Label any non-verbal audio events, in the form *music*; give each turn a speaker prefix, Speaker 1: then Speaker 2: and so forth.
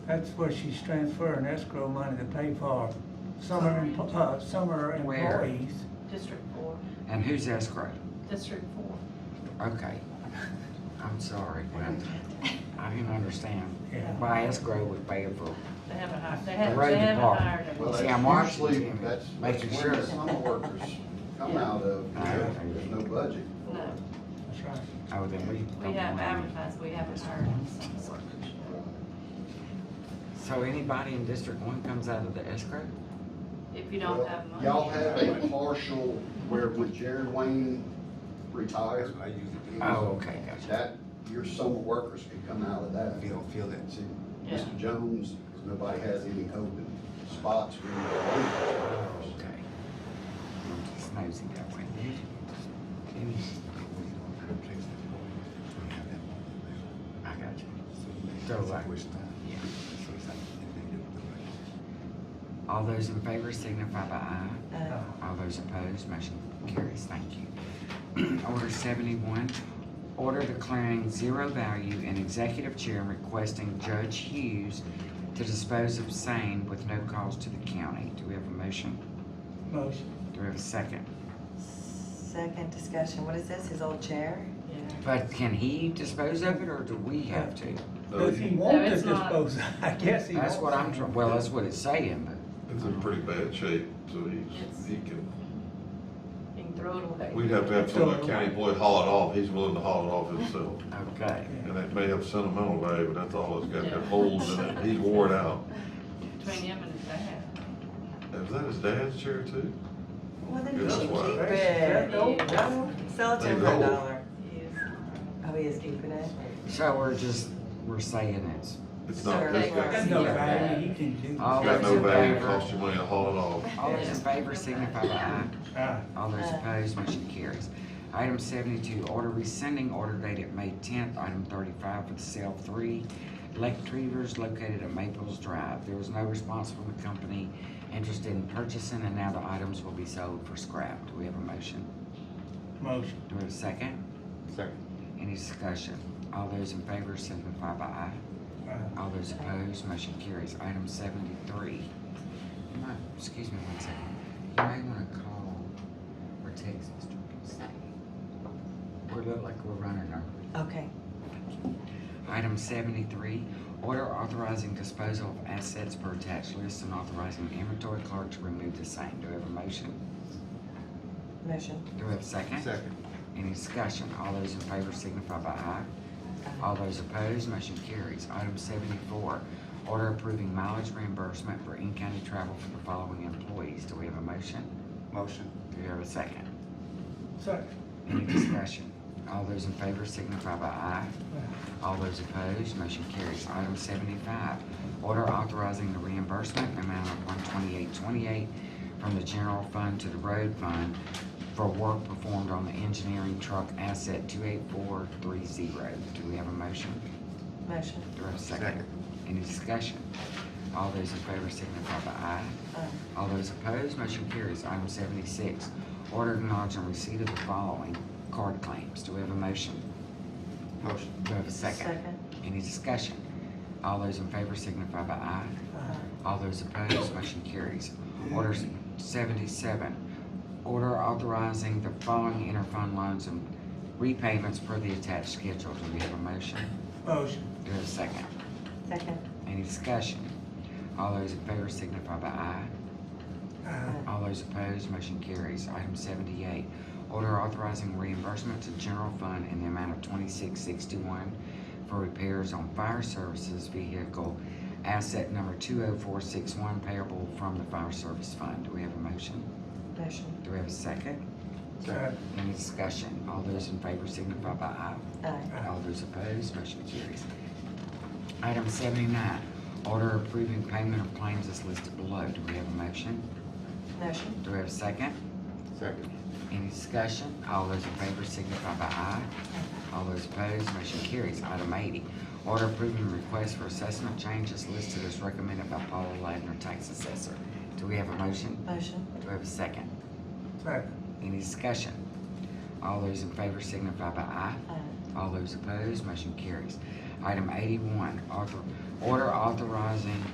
Speaker 1: That's where she's transferring escrow money to pay for summer, em- uh, summer
Speaker 2: Where?
Speaker 1: employees.
Speaker 3: District four,
Speaker 2: And who's escrow?
Speaker 3: district four.
Speaker 2: Okay. I'm sorry, but I didn't understand
Speaker 1: Yeah.
Speaker 2: why escrow was paying for
Speaker 3: They haven't hired, they
Speaker 2: the
Speaker 3: haven't,
Speaker 2: road
Speaker 3: they haven't
Speaker 2: department.
Speaker 3: hired them.
Speaker 4: Well,
Speaker 2: See, I'm
Speaker 4: that's
Speaker 2: watching
Speaker 4: usually,
Speaker 2: Jimmy,
Speaker 4: that's, that's
Speaker 2: making
Speaker 4: when the
Speaker 2: sure.
Speaker 4: summer workers come
Speaker 3: Yeah.
Speaker 4: out of,
Speaker 2: I understand.
Speaker 4: there's no budget.
Speaker 3: No,
Speaker 1: That's right.
Speaker 2: Oh, then we
Speaker 3: we
Speaker 2: don't
Speaker 3: have
Speaker 2: want it.
Speaker 3: advertised, we haven't hired them since workers.
Speaker 2: So anybody in District One comes out of the escrow?
Speaker 3: If you don't
Speaker 4: Well,
Speaker 3: have money.
Speaker 4: Y'all have a partial where when Jared Wayne retired,
Speaker 5: I usually do.
Speaker 2: Oh, okay, gotcha.
Speaker 4: that, your summer workers can come out of that.
Speaker 5: If you don't feel that,
Speaker 4: See,
Speaker 3: Yeah.
Speaker 4: Mr. Jones, nobody has any open spots. for any
Speaker 2: Okay. I'm just nosy that way. Jimmy,
Speaker 5: when you don't have checks that go in, you have that one in there.
Speaker 2: I got you.
Speaker 5: So you make
Speaker 2: So,
Speaker 5: that
Speaker 2: like,
Speaker 5: situation out.
Speaker 2: yeah.
Speaker 5: So it's like, and then you do the right.
Speaker 2: All those in favor signify by aye.
Speaker 1: Uh,
Speaker 2: All those opposed, motion carries. Thank you. *clears throat* Order seventy-one, order declaring zero value and executive chair requesting Judge Hughes to dispose of same with no cost to the county. Do we have a motion?
Speaker 1: Motion,
Speaker 2: Do we have a second?
Speaker 6: Second discussion, what is this, his old chair?
Speaker 3: Yeah.
Speaker 2: But can he dispose of it or do we have to?
Speaker 1: does he want
Speaker 3: Oh, No,
Speaker 1: to
Speaker 3: it's not.
Speaker 1: dispose? *laughs* I guess he wants.
Speaker 2: That's what I'm, tr- well, that's what it's saying, but
Speaker 7: It's in pretty bad shape, so
Speaker 3: It's-
Speaker 7: he's, he can,
Speaker 3: You can throw it away.
Speaker 7: we'd have to have some uh, county employee haul it off, he's willing to haul it off himself.
Speaker 2: okay.
Speaker 7: And that may have sentimental value, but that's all it's got, that holes in it, he's wore it out.
Speaker 3: Between him and his dad.
Speaker 7: Is that his dad's chair too?
Speaker 6: Well, then
Speaker 7: Yeah,
Speaker 6: you
Speaker 7: that's
Speaker 6: should
Speaker 7: why.
Speaker 6: keep
Speaker 1: That's- that
Speaker 6: it.
Speaker 1: old- that old-
Speaker 6: Sell it to him for
Speaker 7: They
Speaker 6: a
Speaker 7: know.
Speaker 6: dollar.
Speaker 3: He is.
Speaker 6: Oh, he is keeping it?
Speaker 2: So we're just, we're saying it's,
Speaker 7: It's not, this
Speaker 1: That's
Speaker 7: guy,
Speaker 1: no value, you can do.
Speaker 2: All
Speaker 7: got no
Speaker 2: Those in
Speaker 7: value,
Speaker 2: favor?
Speaker 7: cost you money to haul it off.
Speaker 2: all those in favor signify by aye.
Speaker 1: Aye.
Speaker 2: All those
Speaker 6: Aye.
Speaker 2: opposed, motion carries. Item seventy-two, order rescinding order dated May tenth, item thirty-five for the sale of three electric retrievers located at Maples Drive. There was no response from the company interested in purchasing, and now the items will be sold for scrap. Do we have a motion?
Speaker 1: Motion,
Speaker 2: Do we have a second?
Speaker 5: Second.
Speaker 2: Any discussion? All those in favor signify by aye.
Speaker 1: Aye.
Speaker 2: All those opposed, motion carries. Item seventy-three. You might- Excuse me one second. You may wanna call or text Mr. Kinsey. We look like we're running our.
Speaker 6: Okay.
Speaker 2: Item seventy-three, order authorizing disposal of assets per attached list and authorizing the inventory clerk to remove the same. Do we have a motion?
Speaker 6: Motion.
Speaker 2: Do we have a second?
Speaker 5: Second.
Speaker 2: Any discussion? All those in favor signify by aye. All those opposed, motion carries. Item seventy-four, order approving mileage reimbursement for in-county travel for the following employees. Do we have a motion?
Speaker 5: Motion.
Speaker 2: Do we have a second?
Speaker 1: second,
Speaker 2: Any discussion? All those in favor signify by aye. All those opposed, motion carries. Item seventy-five, order authorizing the reimbursement amount of one twenty-eight twenty-eight from the general fund to the road fund for work performed on the engineering truck asset two eight four three zero. Do we have a motion?
Speaker 6: Motion.
Speaker 2: Do I have a second?
Speaker 5: Second.
Speaker 2: Any discussion? All those in favor signify by aye.
Speaker 6: Aye.
Speaker 2: All those opposed, motion carries. Item seventy-six, order acknowledging receipt of the following card claims. Do we have a motion?
Speaker 5: Motion.
Speaker 2: Do we have a second? Any discussion? All those in favor signify by aye.
Speaker 1: Aye.
Speaker 2: All those opposed, motion carries. Order seventy-seven, order authorizing the following interfund loans and repayments per the attached schedule. Do we have a motion?
Speaker 1: motion,
Speaker 2: Do we have a second?
Speaker 6: Second.
Speaker 2: Any discussion? All those in favor signify by aye.
Speaker 1: Aye.
Speaker 2: All those opposed, motion carries. Item seventy-eight, order authorizing reimbursement to general fund in the amount of twenty-six sixty-one for repairs on fire services vehicle asset number two oh four six one payable from the fire service fund. Do we have a motion?
Speaker 6: Motion.
Speaker 2: Do we have a second?
Speaker 1: Second.
Speaker 2: Any discussion? All those in favor signify by aye.
Speaker 6: Aye.
Speaker 2: All those opposed, motion carries. Item seventy-nine, order approving payment of claims as listed below. Do we have a motion?
Speaker 6: Motion.
Speaker 2: Do we have a second?
Speaker 5: Second.
Speaker 2: Any discussion? All those in favor signify by aye. All those opposed, motion carries. Item eighty, order approving request for assessment changes listed as recommended by Paula Ladner, tax assessor. Do we have a motion?
Speaker 6: Motion.
Speaker 2: Do we have a second?
Speaker 1: second,
Speaker 2: Any discussion? All those in favor signify by aye.
Speaker 6: Aye.
Speaker 2: All those opposed, motion carries. Item eighty-one, author, Order authorizing